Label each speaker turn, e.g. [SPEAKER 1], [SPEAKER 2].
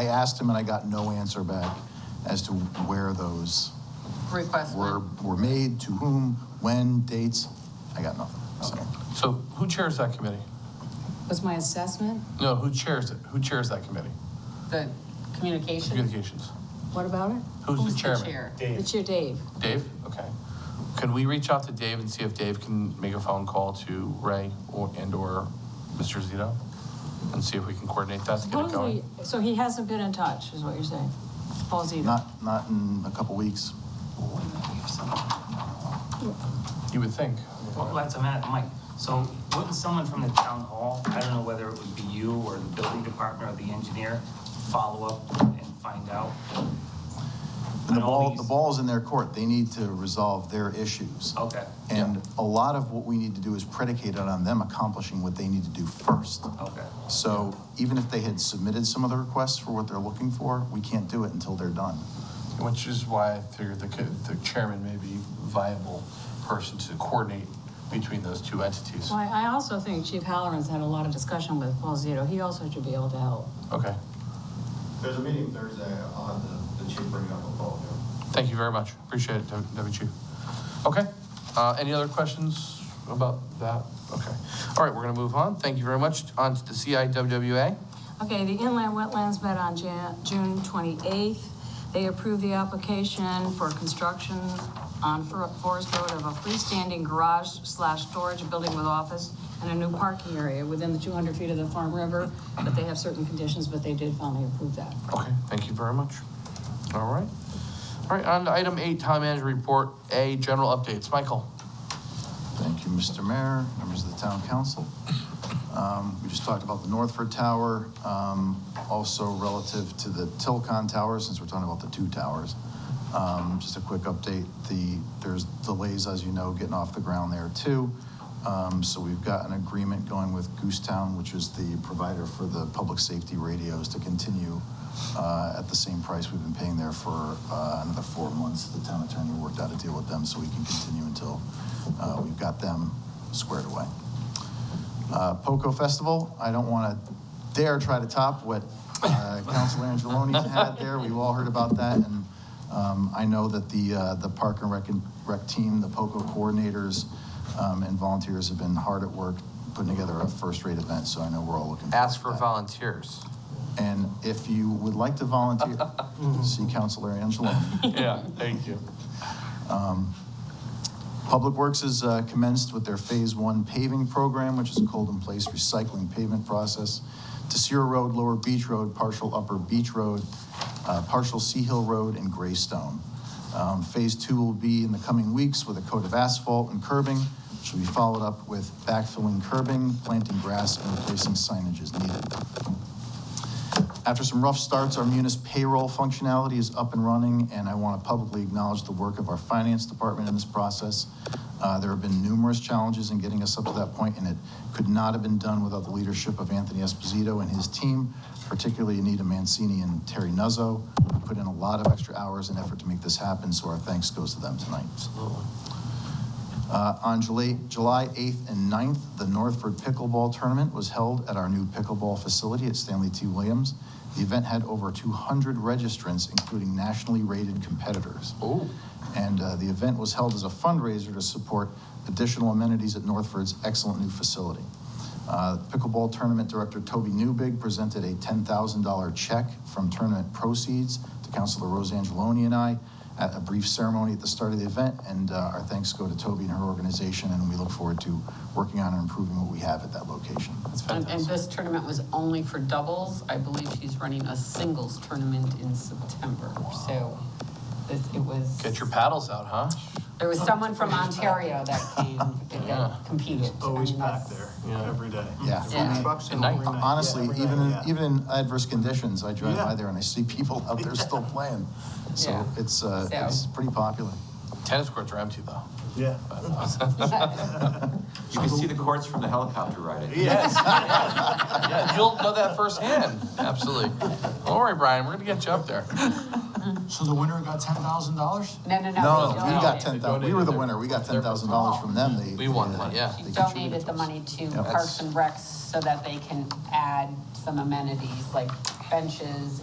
[SPEAKER 1] I asked him and I got no answer back as to where those
[SPEAKER 2] request
[SPEAKER 1] were,
[SPEAKER 2] went.
[SPEAKER 1] were made, to whom, when, dates. I got nothing. So
[SPEAKER 3] So who chairs that committee?
[SPEAKER 4] Was my assessment,
[SPEAKER 3] No, who chairs it? Who chairs that committee?
[SPEAKER 2] The communication.
[SPEAKER 3] Communications.
[SPEAKER 4] what about it?
[SPEAKER 3] Who's the chairman?
[SPEAKER 2] chair?
[SPEAKER 4] It's your Dave.
[SPEAKER 3] Dave? Okay. Can we reach out to Dave and see if Dave can make a phone call to Ray or, and/or Mr. Zito? And see if we can coordinate that to get it
[SPEAKER 4] Supposedly,
[SPEAKER 3] going?
[SPEAKER 4] e- so he hasn't been in touch, is what you're saying? Paul Zito.
[SPEAKER 1] Not, not in a couple weeks.
[SPEAKER 3] You would think.
[SPEAKER 5] Well, that's a minute, Mike. So wouldn't someone from the town hall, I don't know whether it would be you or the building department or the engineer, follow up and find out?
[SPEAKER 1] And the
[SPEAKER 5] And all
[SPEAKER 1] ball, the
[SPEAKER 5] these-
[SPEAKER 1] ball's in their court. They need to resolve their issues.
[SPEAKER 5] Okay,
[SPEAKER 1] And a lot of what we need to do is predicated on them accomplishing what they need to do first.
[SPEAKER 5] okay.
[SPEAKER 1] So even if they had submitted some of the requests for what they're looking for, we can't do it until they're done.
[SPEAKER 3] Which is why I figured the, co- the chairman may be viable person to coordinate between those two entities.
[SPEAKER 4] Well, I I also think Chief Halloran's had a lot of discussion with Paul Zito. He also should be able to help.
[SPEAKER 3] Okay.
[SPEAKER 6] There's a meeting Thursday on the, the chief bringing up a vote.
[SPEAKER 3] Thank you very much. Appreciate it, Deb- Deputy Chief. Okay, uh, any other questions about that? Okay. All right, we're gonna move on. Thank you very much. On to the CIWWA.
[SPEAKER 4] Okay, the inland wetlands met on Jan, June 28th. They approved the application for construction on For- Forest Road of a freestanding garage slash storage building with office and a new parking area within the 200 feet of the Farm River, but they have certain conditions, but they did finally approve that.
[SPEAKER 3] Okay, thank you very much. All right. All right, on to item eight, town manager report, A, general updates. Michael?
[SPEAKER 1] Thank you, Mr. Mayor, members of the town council. Um, We just talked about the Northford Tower, um, also relative to the Tilcon Tower, since we're talking about the two towers. Um, Just a quick update, the, there's delays, as you know, getting off the ground there too. Um, So we've got an agreement going with Goose Town, which is the provider for the public safety radios, to continue uh, at the same price we've been paying there for uh, another four months. The town attorney worked out a deal with them, so we can continue until uh, we've got them squared away. Uh, POCO Festival, I don't want to dare try to top what uh, Council Angeloni had there. We've all heard about that, and um, I know that the, uh, the Park and Rec, Rec team, the POCO coordinators um, and volunteers have been hard at work putting together a first-rate event, so I know we're all looking forward to
[SPEAKER 3] Ask for
[SPEAKER 1] that.
[SPEAKER 3] volunteers.
[SPEAKER 1] And if you would like to volunteer, see Councilor Angeloni.
[SPEAKER 3] Yeah, thank you.
[SPEAKER 1] Um, Public Works has uh, commenced with their Phase One paving program, which is a cold-in-place recycling pavement process. Desir Road, Lower Beach Road, partial Upper Beach Road, uh, partial Sea Hill Road, and Greystone. Um, Phase Two will be in the coming weeks with a coat of asphalt and curbing, which will be followed up with backfilling curbing, planting grass, and replacing signage as needed. After some rough starts, our Munis payroll functionality is up and running, and I want to publicly acknowledge the work of our finance department in this process. Uh, There have been numerous challenges in getting us up to that point, and it could not have been done without the leadership of Anthony Esposito and his team, particularly Anita Mancini and Terry Nuzzo, who put in a lot of extra hours and effort to make this happen, so our thanks goes to them tonight. Uh, On July July 8th and 9th, the Northford Pickleball Tournament was held at our new pickleball facility at Stanley T. Williams. The event had over 200 registrants, including nationally rated competitors.
[SPEAKER 3] Oh.
[SPEAKER 1] And uh, the event was held as a fundraiser to support additional amenities at Northford's excellent new facility. Uh, Pickleball Tournament Director Toby Newbig presented a $10,000 check from tournament proceeds to Councilor Rose Angeloni and I at a brief ceremony at the start of the event, and uh, our thanks go to Toby and her organization, and we look forward to working on and improving what we have at that location.
[SPEAKER 2] And and this tournament was only for doubles. I believe she's running a singles tournament in September. So this, it was.
[SPEAKER 3] Get your paddles out, huh?
[SPEAKER 2] There was someone from Ontario that came,
[SPEAKER 3] Yeah.
[SPEAKER 2] that competed.
[SPEAKER 6] Always
[SPEAKER 2] I mean,
[SPEAKER 6] packed
[SPEAKER 2] that's-
[SPEAKER 6] there,
[SPEAKER 3] Yeah.
[SPEAKER 6] every day.
[SPEAKER 1] Yeah.
[SPEAKER 2] Yeah.
[SPEAKER 6] Trucks
[SPEAKER 3] At night.
[SPEAKER 6] every night.
[SPEAKER 1] Honestly,
[SPEAKER 6] Yeah, every
[SPEAKER 1] even, in-
[SPEAKER 6] night, yeah.
[SPEAKER 1] even in adverse conditions, I drive by
[SPEAKER 6] Yeah.
[SPEAKER 1] there and I see people out there still playing. So
[SPEAKER 2] Yeah.
[SPEAKER 1] it's, uh,
[SPEAKER 2] So-
[SPEAKER 1] it's pretty popular.
[SPEAKER 3] Tennis courts are empty, though.
[SPEAKER 6] Yeah.
[SPEAKER 7] You can see the courts from the helicopter ride. it.
[SPEAKER 6] Yes.
[SPEAKER 3] Yeah, you'll know that firsthand. Absolutely. Don't worry, Brian, we're gonna get you up there.
[SPEAKER 8] So the winner got ten thousand dollars?
[SPEAKER 2] No, no, no.
[SPEAKER 1] No,
[SPEAKER 2] she
[SPEAKER 1] we got
[SPEAKER 2] donated.
[SPEAKER 1] ten thousand, we were the winner, we got ten thousand dollars from them, they.
[SPEAKER 3] We won one, yeah.
[SPEAKER 2] She
[SPEAKER 1] they
[SPEAKER 2] donated
[SPEAKER 1] contributed
[SPEAKER 2] the
[SPEAKER 1] to us.
[SPEAKER 2] money to
[SPEAKER 1] Yeah.
[SPEAKER 2] Parks and Recs so that they can add some amenities like benches